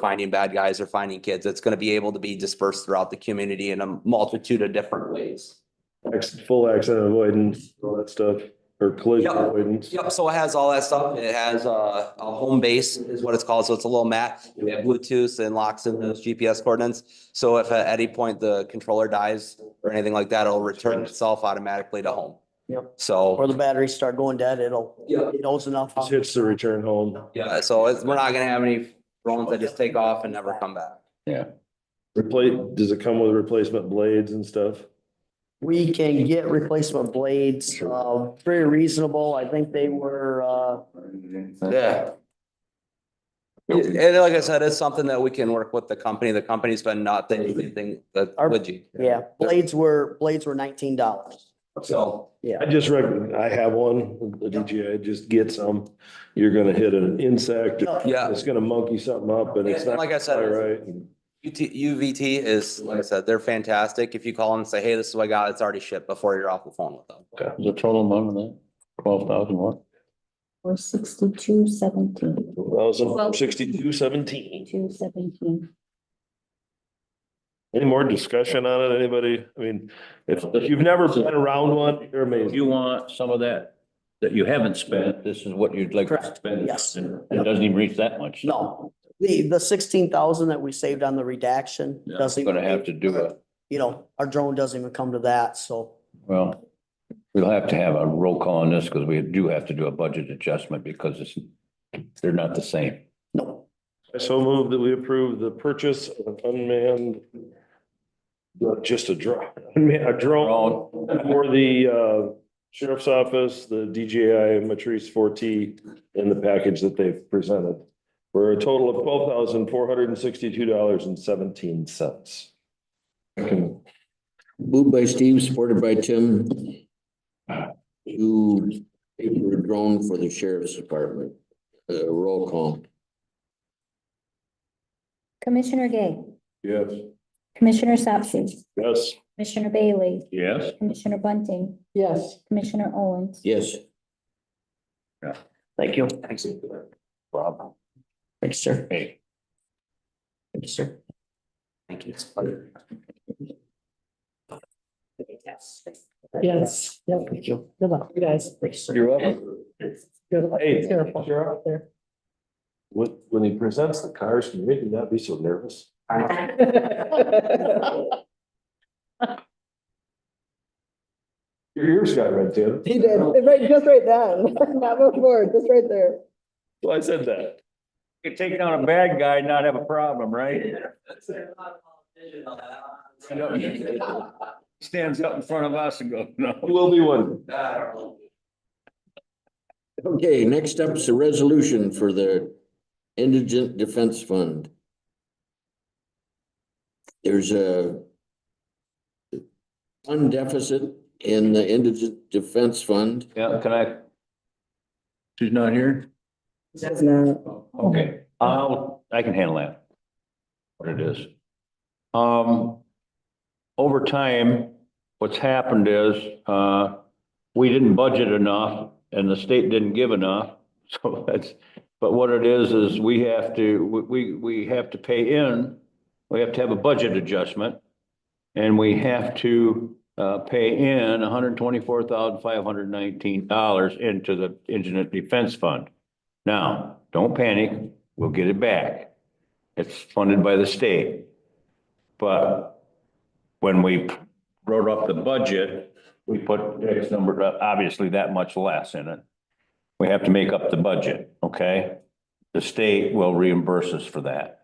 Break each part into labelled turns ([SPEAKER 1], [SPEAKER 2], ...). [SPEAKER 1] finding bad guys or finding kids. It's going to be able to be dispersed throughout the community in a multitude of different ways.
[SPEAKER 2] Ex- Full accident avoidance, all that stuff, or collision
[SPEAKER 1] Yep.
[SPEAKER 2] avoidance.
[SPEAKER 1] Yep, so it has all that stuff. It has a, a home base is what it's called. So it's a little mat. We have Bluetooth and locks in those GPS coordinates. So if at any point the controller dies or anything like that, it'll return itself automatically to home.
[SPEAKER 3] Yep.
[SPEAKER 1] So,
[SPEAKER 3] Or the batteries start going dead, it'll,
[SPEAKER 1] yeah,
[SPEAKER 3] it knows enough.
[SPEAKER 2] Just hits the return home.
[SPEAKER 1] yeah, so it's, we're not gonna have any drones that just take off and never come back.
[SPEAKER 2] Replace, does it come with replacement blades and stuff?
[SPEAKER 3] We can get replacement blades, uh, very reasonable. I think they were, uh,
[SPEAKER 1] Yeah. And like I said, it's something that we can work with the company. The company's been not the anything that
[SPEAKER 3] Our-
[SPEAKER 1] would you.
[SPEAKER 3] yeah, blades were, blades were nineteen dollars.
[SPEAKER 1] So,
[SPEAKER 3] Yeah.
[SPEAKER 2] I just reckon, I have one, the DJI, just get some, you're gonna hit an insect,
[SPEAKER 3] No,
[SPEAKER 1] yeah,
[SPEAKER 2] it's gonna monkey something up and it's
[SPEAKER 1] And
[SPEAKER 2] not
[SPEAKER 1] like I said,
[SPEAKER 2] quite right.
[SPEAKER 1] UT, UVT is, like I said, they're fantastic. If you call them and say, hey, this is what I got, it's already shipped before you're off the phone with them.
[SPEAKER 4] The total amount of that, twelve thousand what?
[SPEAKER 5] Or sixty-two seventeen,
[SPEAKER 2] Thousand sixty-two seventeen.
[SPEAKER 5] two seventeen.
[SPEAKER 2] Any more discussion on it, anybody? I mean, if if you've never been around one, you're
[SPEAKER 4] If
[SPEAKER 2] amazing.
[SPEAKER 4] you want some of that, that you haven't spent, this is what you'd like to
[SPEAKER 3] Correct,
[SPEAKER 4] spend.
[SPEAKER 3] yes.
[SPEAKER 4] And It doesn't even reach that much.
[SPEAKER 3] No, the, the sixteen thousand that we saved on the redaction
[SPEAKER 4] Yeah,
[SPEAKER 3] doesn't.
[SPEAKER 4] Gonna have to do it.
[SPEAKER 3] You know, our drone doesn't even come to that, so.
[SPEAKER 4] Well, we'll have to have a roll call on this because we do have to do a budget adjustment because it's, they're not the same.
[SPEAKER 3] No,
[SPEAKER 2] I so move that we approve the purchase of an unmanned not just a drone, a drone for the uh sheriff's office, the DJI Matrice four T and the package that they've presented for a total of twelve thousand four hundred and sixty-two dollars and seventeen cents.
[SPEAKER 6] Moved by Steve, supported by Tim. To pay for a drone for the sheriff's department. Uh, roll call.
[SPEAKER 5] Commissioner Gay,
[SPEAKER 2] Yes.
[SPEAKER 5] Commissioner Sapsi,
[SPEAKER 2] Yes.
[SPEAKER 5] Commissioner Bailey,
[SPEAKER 4] Yes.
[SPEAKER 5] Commissioner Bunting,
[SPEAKER 3] yes,
[SPEAKER 5] Commissioner Owens.
[SPEAKER 6] Yes,
[SPEAKER 3] thank you.
[SPEAKER 1] Thanks.
[SPEAKER 4] Rob.
[SPEAKER 3] Thanks, sir.
[SPEAKER 4] Hey,
[SPEAKER 3] Thank you, sir.
[SPEAKER 1] Thank you.
[SPEAKER 3] Yes, yeah, thank you. Good luck, you guys.
[SPEAKER 2] You're welcome. Hey, Sheriff. When, when he presents the cars, can you make me not be so nervous? Your ears got red, Tim.
[SPEAKER 7] He did, right, just right then, not before, just right there.
[SPEAKER 2] Well, I said that.
[SPEAKER 4] you're taking on a bad guy, not have a problem, right? Stands up in front of us and goes, no.
[SPEAKER 2] You will be one.
[SPEAKER 6] okay, next up is a resolution for the indigent defense fund. There's a fund deficit in the indigent defense fund.
[SPEAKER 4] Yeah, can I? She's not here?
[SPEAKER 7] That's not.
[SPEAKER 4] Okay, I'll, Uh, I can handle that. What it is. Um, over time, what's happened is, uh, we didn't budget enough and the state didn't give enough. So that's, but what it is, is we have to, we, we we have to pay in, we have to have a budget adjustment. And we have to, uh, pay in hundred and twenty-four thousand, five hundred and nineteen dollars into the Indigent Defense Fund. Now, don't panic, we'll get it back. It's funded by the state. But when we wrote up the budget, we put X number, uh, obviously that much less in it. We have to make up the budget, okay? The state will reimburse us for that.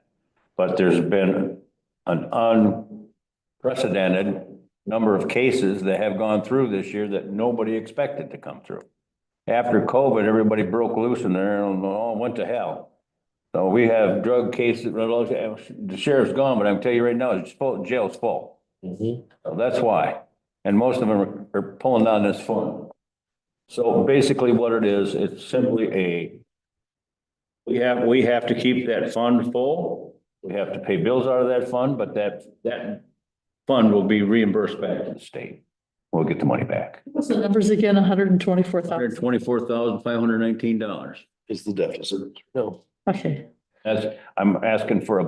[SPEAKER 4] But there's been an unprecedented number of cases that have gone through this year that nobody expected to come through after COVID, everybody broke loose in there and all went to hell. So we have drug cases, the sheriff's gone, but I'm telling you right now, it's full, jail's full.
[SPEAKER 2] Mm-hmm.
[SPEAKER 4] So that's why. And most of them are pulling down this phone. So basically what it is, it's simply a, we have, we have to keep that fund full. We have to pay bills out of that fund, but that, that fund will be reimbursed back to the state. We'll get the money back.
[SPEAKER 7] What's the numbers again, hundred and twenty-four
[SPEAKER 4] Hundred
[SPEAKER 7] thousand?
[SPEAKER 4] twenty-four thousand, five hundred nineteen dollars.
[SPEAKER 2] Is the deficit. No.
[SPEAKER 7] Okay.
[SPEAKER 4] That's, I'm asking for a